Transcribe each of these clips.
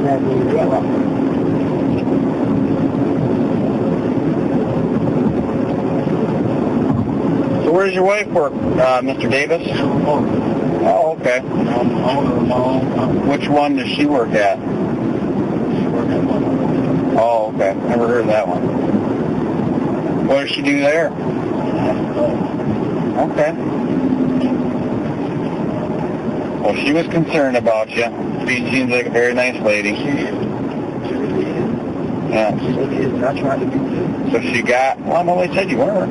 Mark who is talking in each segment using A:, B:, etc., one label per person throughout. A: Yeah, well,
B: So where does your wife work, uh, Mr. Davis? Oh, okay.
A: I'm the owner of my own company.
B: Which one does she work at?
A: She works at one of them.
B: Oh, okay. Never heard of that one. What does she do there? Okay. Well, she was concerned about you. She seems like a very nice
A: She
B: lady.
A: is. She really is.
B: Yeah.
A: She really is. And I tried to be too.
B: So she got, well, no, they said you were.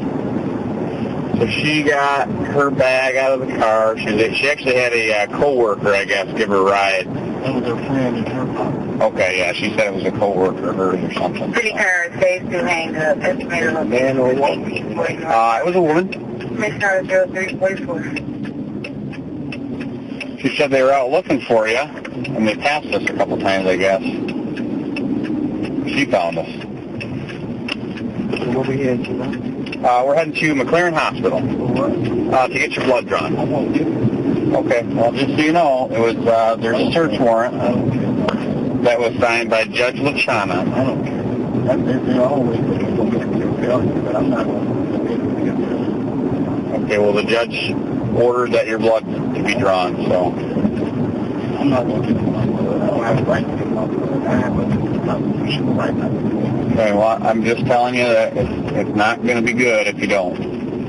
B: So she got her bag out of the car. She, was- she actually had a uh, coworker, I guess, give her a ride.
A: That was her friend in her pocket.
B: Okay, yeah, she said it was a coworker of hers or something.
C: City car is phase two hang up. Estimated location.
A: Man or what?
C: 1849.
B: Uh, it was a woman.
C: Commissioner 0344.
B: She said they were out looking for you, and they passed us a couple times, I guess. She found us.
A: So what we had tonight?
B: Uh, we're heading to McLaren Hospital
A: For what?
B: uh, to get your blood drawn.
A: I won't do it.
B: Okay. Well, just so you know, it was uh, there's a search warrant
A: I don't care.
B: that was signed by Judge Lachana.
A: I don't care. That, they, they always think it's going to get their value, but I'm not going to get their value.
B: Okay. Well, the judge ordered that your blood to be drawn. So,
A: I'm not going to get my blood. I don't have a right to get my blood. I have a constitutional right not to do it.
B: okay, well, I'm just telling you that it's, it's not going to be good if you don't.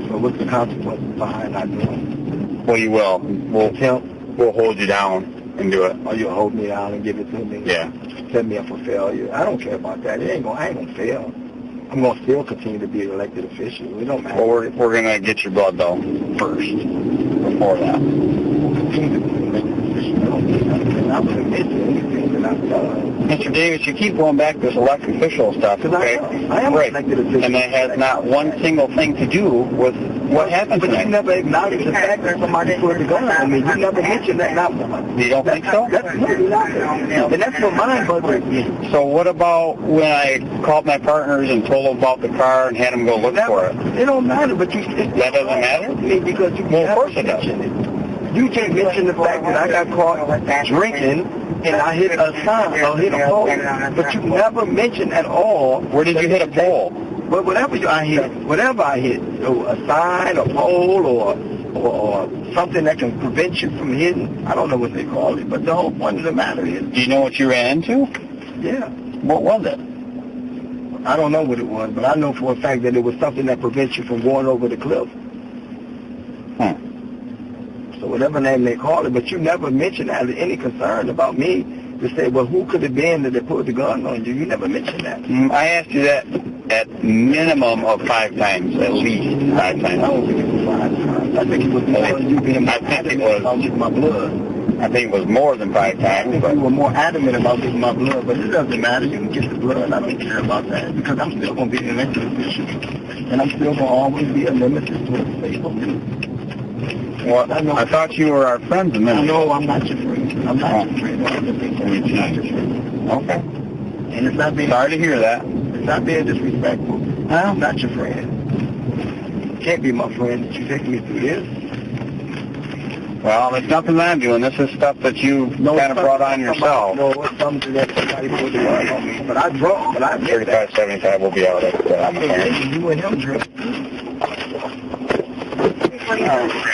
A: So what's the consequence behind not doing
B: Well, you will.
A: it?
B: We'll
A: Attempt,
B: we'll hold you down and do it.
A: or you'll hold me down and give it to me?
B: Yeah.
A: Set me up for failure. I don't care about that. It ain't gonna, I ain't gonna fail. I'm gonna still continue to be an elected official. It don't matter.
B: Well, we're we're gonna get your blood though first before that.
A: We'll continue to be an elected official. I don't care nothing. I'm gonna admit to anything that I've done.
B: Mr. Davis, you keep going back to this elected official stuff,
A: Because I
B: okay?
A: am. I am an
B: right.
A: elected official.
B: And that has not one single thing to do with what happened
A: But you
B: tonight.
A: never acknowledged the fact that somebody put the gun on me. You never mentioned that, not one.
B: You don't think so?
A: That's really nothing. And that's what mine bothers me.
B: So what about when I called my partners and told them about the car and had them go look
A: That-
B: for it?
A: It don't matter, but you. It,
B: That doesn't matter?
A: I mean, because you.
B: Well, of course it does.
A: mentioned it. You can't mention the fact that I got caught drinking and I hit a sign or hit a pole, but you never mentioned at all.
B: Where did you hit a pole?
A: But whatever you, I hit, whatever I hit, so a sign, a pole, or, or or something that can prevent you from hitting. I don't know what they call it, but the whole point of the matter is,
B: Do you know what you ran into?
A: yeah.
B: What was it?
A: I don't know what it was, but I know for a fact that it was something that prevents you from going over the cliff.
B: Hmm.
A: So whatever name they call it, but you never mentioned that as any concern about me to say, well, who could have been that they put the gun on you? You never mentioned that.
B: Mm, I asked you that at minimum of five times, at least five
A: I
B: times.
A: don't think it was five times. I think it was more you being
B: I think
A: adamant
B: it was-
A: about getting my blood.
B: I think it was more than five
A: I
B: times,
A: think
B: but
A: you were more adamant about getting my blood, but it doesn't matter. You can get the blood. I don't care about that because I'm still going to be an elected official. And I'm still going to always be a nemesis to what the state going to do.
B: well, I thought you were our friends a
A: I
B: minute. ago.
A: know I'm not your friend. I'm not your friend. I'm just being friend.
B: Okay.
A: And it's not being
B: Sorry to hear that.
A: it's not being disrespectful. I'm not your friend. Can't be my friend that you taking me through this.
B: Well, there's nothing that I'm doing. This is stuff that you kind of
A: it's
B: brought on
A: something that
B: yourself.
A: Somebody, no, it's something that somebody put the gun on me. But I drunk, but I admit that.
B: 3575 will be out at uh,
A: I'm a man. You and him drunk.
B: Alright.